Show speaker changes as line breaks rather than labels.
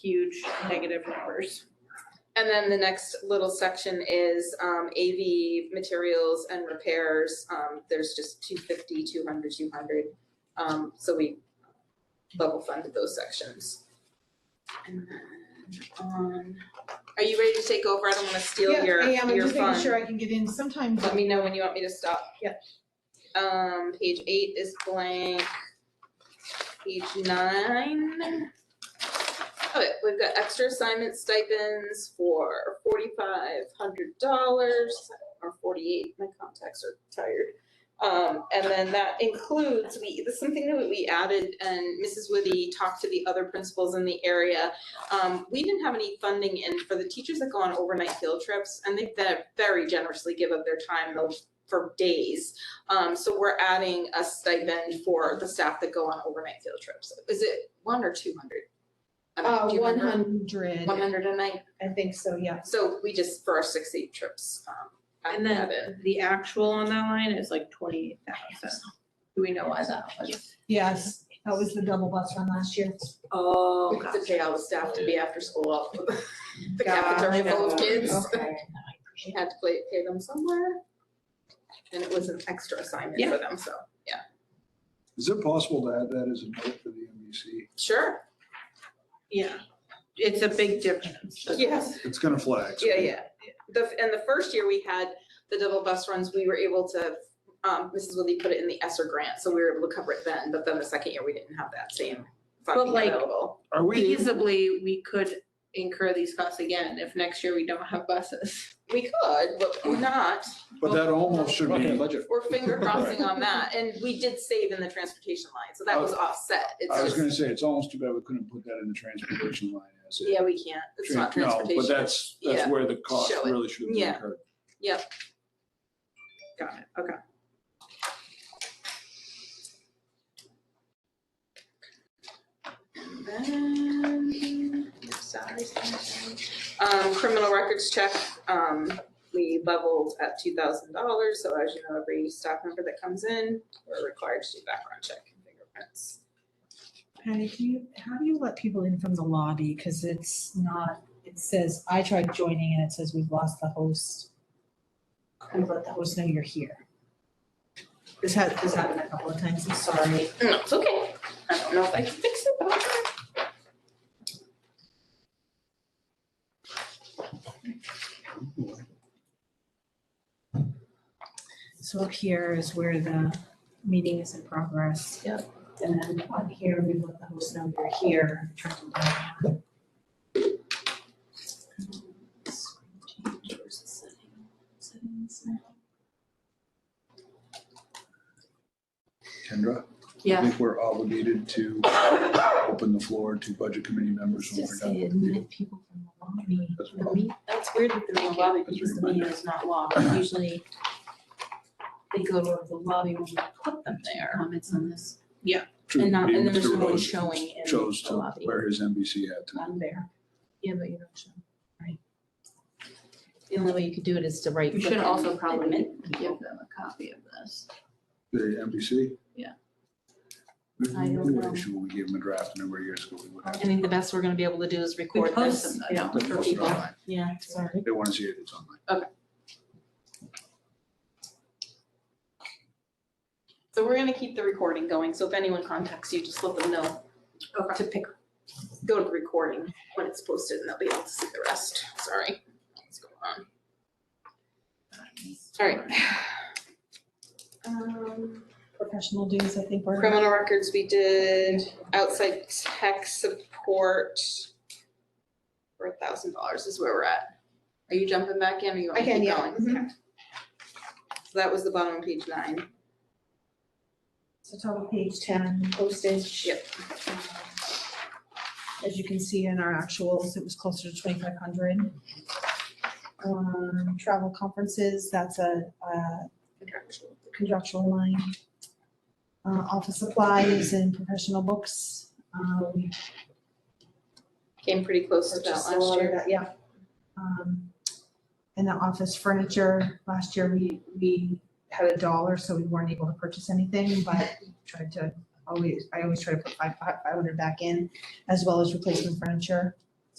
huge negative numbers.
And then the next little section is um AV materials and repairs. Um there's just 250, 200, 200. Um so we level funded those sections. And then on, are you ready to take over? I don't wanna steal your your fun.
Yeah, I am, I'm just making sure I can get in sometimes.
Let me know when you want me to stop.
Yeah.
Um, page eight is blank. Page nine. Okay, we've got extra assignment stipends for forty-five hundred dollars or forty-eight, my contacts are tired. Um, and then that includes, we, this is something that we added and Mrs. Woody talked to the other principals in the area. Um, we didn't have any funding in for the teachers that go on overnight field trips and they ve- very generously give up their time though for days. Um, so we're adding a stipend for the staff that go on overnight field trips. Is it one or two hundred?
Uh, one hundred,
One hundred a night.
I think so, yeah.
So we just, for our six, eight trips, um, add
And
that
then
in.
the actual on that line is like twenty-eight thousand. Do we know why that was?
Yes, that was the double bus run last year.
Oh,
Because to pay all the staff to be after school, all the
Gotcha.
cafeteria full of kids.
Okay.
She had to play, pay them somewhere. And it was an extra assignment for them, so, yeah,
Is it possible to add that as a note to the E MVC?
sure,
Yeah, it's a big difference.
yes.
It's gonna flag. so-
Yeah, yeah. The, and the first year we had the double bus runs, we were able to, um, Mrs. Willie put it in the ESSER grant, so we were able to cover it then, but then the second year, we didn't have that same funding
like-
available.
Are we,
Feasibly, we could incur these costs again if next year we don't have buses.
We could, but we're not,
but that almost should be,
budget.
we're finger crossing on that, and we did save in the transportation line, so that was offset,
I was
it's
gonna
just,
say, it's almost too bad we couldn't put that in the transportation line as it.
yeah, we can't, it's not
No, but
transportation.
that's, that's
Yeah.
where the cost
Show it.
really should have been
Yeah.
incurred.
Got it, okay.
Then, salaries, Um, criminal records check, um, we leveled at two thousand dollars, so as you know, every staff member that comes in, we're required to do background check and fingerprints.
Patty, can you, how do you let people in from the lobby? Because it's not, it says, I tried joining and it says we've lost the host. Kind of let the host know you're here. This has, this happened a couple of times, I'm sorry.
No, it's okay, I don't know if I can fix it, but I'll try.
So up here is where the meeting is in progress. Yep. And then on here, we let the host know you're here. Turn it down.
Kendra? I think we're obligated to open the floor to budget committee members when we're
Just
done.
say
with the meeting.
admit people from the lobby.
That's
The
what-
meet, that's weird that they're in the lobby
That's
because the
weird.
meeting is not locked. Usually they go to the lobby when we put them there. Comments on this.
True,
And not, and
even
then there's
Mr.
no one
Rhodes
showing in
chose
the
to
lobby.
wear his MVC hat tonight.
I'm there. Yeah, but you don't show.
The only way you could do it is to right
You
click.
should
and
also probably
admit.
give them a copy of this.
The MVC?
Yeah.
We
I don't
we would
know.
issue, when we gave him a draft a number of years ago. we would
I
have-
think the best we're gonna be able to do is
We
record
post
this.
them, though, yeah.
They
for
posted
people.
online.
Yeah, sorry.
They wanna see it, it's online.
So we're gonna keep the recording going, so if anyone contacts you, just let them know to pick, go to the recording when it's posted and they'll be able to see the rest, sorry. Let's go on. All right. Um,
Professional dues, I think we're.
Criminal records we did, outside tech support for a thousand dollars is where we're at. Are you jumping back in or you want
I
me to
can,
keep
yeah.
going?
Mhm.
So that was the bottom of page nine.
So top of page ten, postage. Um,
Yep.
As you can see in our actuals, it was closer to twenty-five hundred. Um, travel conferences, that's a, uh, contractual line. Uh, office supplies and professional books, um,
Came pretty close to that
just a
last
lot of
year.
that, yeah. Um, and the office furniture, last year we, we had a dollar, so we weren't able to purchase anything, but tried to always, I always try to put five, five hundred back in, as well as replacement furniture.